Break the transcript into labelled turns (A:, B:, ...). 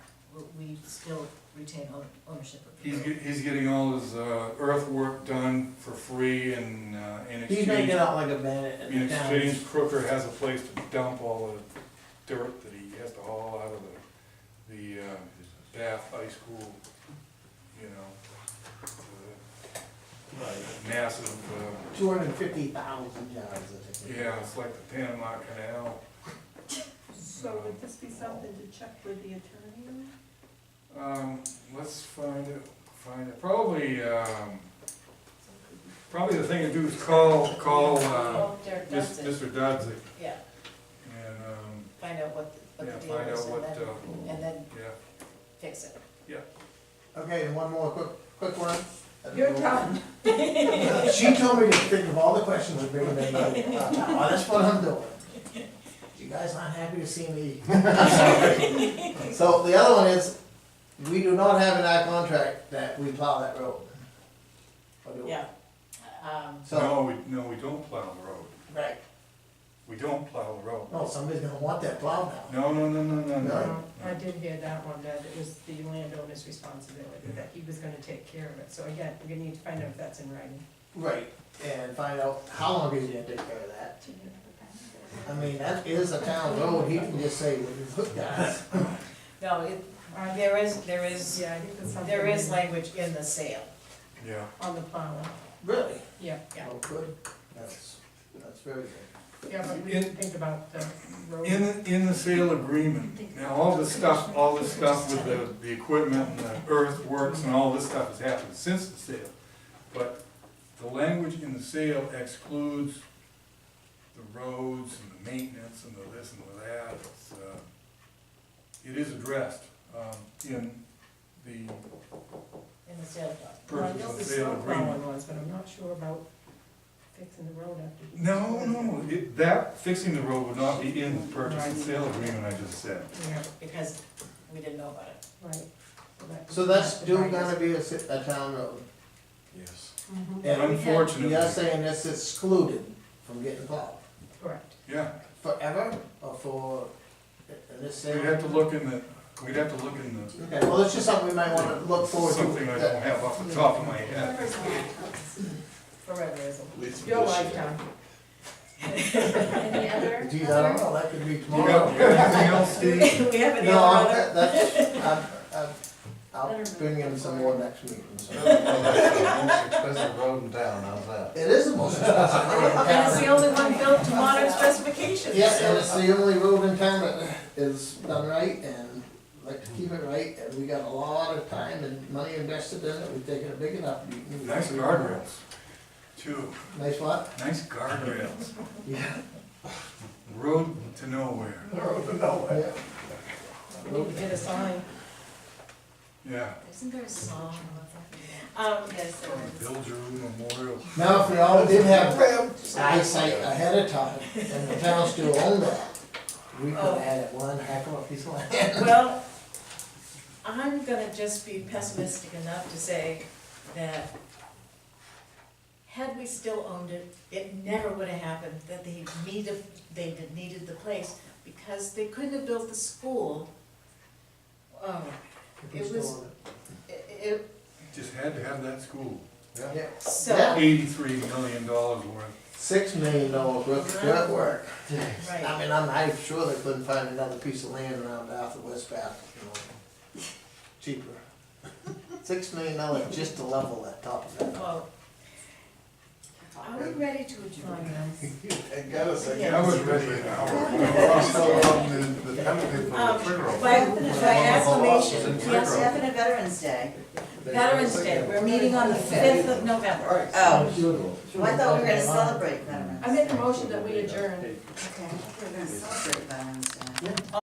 A: you still retain own- ownership of the
B: He's,
A: road.
B: get- he's getting all his uh, earthwork done for free and uh, in
C: He's making
B: exchange,
C: out like a bandit
B: in
C: in the town.
B: exchange Crooker has a place to dump all the dirt that he has to haul out of the, the uh, Bath High School, you know. the Massive, uh,
C: Two hundred and fifty thousand yards, I think.
B: yeah, it's like the Panama Canal.
D: So would this be something to check with the attorney? on?
B: Um, let's find it, find it, probably, um, probably the thing to do is call, call, uh,
A: Oh, Derek
B: Mis-
A: Dodson,
B: Mr. Dodzik,
A: yeah,
B: and, um,
A: find out what, the-
B: yeah,
A: what the deal
B: find
A: is
B: out
A: and
B: what,
A: then,
B: uh,
A: and then
B: yeah,
A: fix it.
C: Okay, and one more quick, quick one.
D: Your turn.
C: She told me to think of all the questions and bring them in. Oh, that's what I'm doing. You guys aren't happy to see me. So the other one is, we do not have in our contract that we plow that road. Or do we?
A: Yeah. Um,
C: So,
B: no, we, no, we don't plow the road,
C: right,
B: we don't plow the road.
C: no, Oh, somebody's gonna want that plowed now.
B: No, no, no, no, no, no.
C: No.
E: I did hear that one, that it was the landowner's responsibility, that he was gonna take care of it, so again, we're gonna need to find out if that's in writing.
C: Right, and find out how long he's gonna take care of that. I mean, that is a town road, he can just say, well, it's hooked us.
A: no, it, there is, there is,
E: Yeah, I think that's something.
A: there is
E: like
A: language in the sale,
B: Yeah,
E: On the plowing,
C: Really?
E: yeah,
A: yeah.
C: Oh, good, that's, that's very good.
E: yeah, but we didn't think about the road.
B: in, the- in the sale agreement, now, all this stuff, all this stuff with the, the equipment and the earthworks and all this stuff has happened since the sale. But the language in the sale excludes the roads and the maintenance and the this and the that, it's, uh, it is addressed, um, in the
A: in the sale document.
E: Well, I
B: purchase
E: know
B: and
E: the
B: sale
E: snow plowing
B: agreement.
E: was, but I'm not sure about fixing the road after.
B: No, no, it, that, fixing the road would not be in the purchase and sale agreement I just said.
E: Yeah,
A: Because we didn't know about it.
E: right. that-
C: So that's still
E: Right,
C: gonna be a, ci- a town road. Mm-hmm.
F: Yes.
E: mhm,
C: And
B: Unfortunately,
C: you're saying it's excluded from getting plowed
E: Correct,
B: yeah,
C: forever or for, in this
B: we'd have
C: area?
B: to look in the, we'd have to look in the,
C: Okay, well, it's just something we might wanna look forward to.
B: something I don't have off the top of my head.
A: Forever is a.
E: your lifetime.
G: Any other?
C: Geez, I don't know, that could be
B: You got,
C: tomorrow.
B: you got anything else,
A: We have
B: Steve?
A: another
C: No, I'm-
A: other,
C: that- that's, I'm- I'm- I'll bring in some more next meeting, so.
F: Most expensive road in town, how's that?
C: It is the most expensive road in
A: and it's the
C: town.
A: only one built to modern specifications.
C: Yeah, and it's the only road in town that is done right and like to keep it right, and we got a lot of time and money invested in it, we've taken a big enough. beating.
B: Nice guardrails, too,
C: Nice what?
B: nice guardrails,
C: Yeah.
B: road to nowhere,
C: Yeah.
E: We need to get a sign.
B: yeah.
G: Isn't there a song about that?
A: Um,
G: Yes, there is.
B: Bilgeroot Memorial,
C: Now, if we all did have eyesight ahead of time, and the town still owned that, we could
A: Oh.
C: add it one heck of a piece of land.
A: Well, I'm gonna just be pessimistic enough to say that had we still owned it, it never would have happened that they needed, they did- needed the place because they couldn't have built the school. Oh, It was- i- i-
B: just had to have that school,
C: Yeah.
A: so,
C: Yeah.
B: eighty-three million dollars worth.
C: Six million dollars worth of dirt work. I
A: right,
C: mean, I'm, I'm sure they couldn't find another piece of land around Bath or West Bath, you know, cheaper. Six million dollars just to level that top of that.
A: well. oh. Are we ready to adjourn now?
F: I gotta say,
A: Yeah.
F: I was ready an hour ago. I'm still on the, the penalty for the
A: Um,
F: trigger.
A: By, by acclamation,
F: It's in
A: we are
F: trigger.
A: having a Veterans Day. Veterans Day, we're meeting on the fifth of November.
G: Oh,
C: Well,
G: I thought we were gonna celebrate Veterans.
E: I make a motion that we adjourn.
G: Okay, I thought we were gonna celebrate Veterans Day.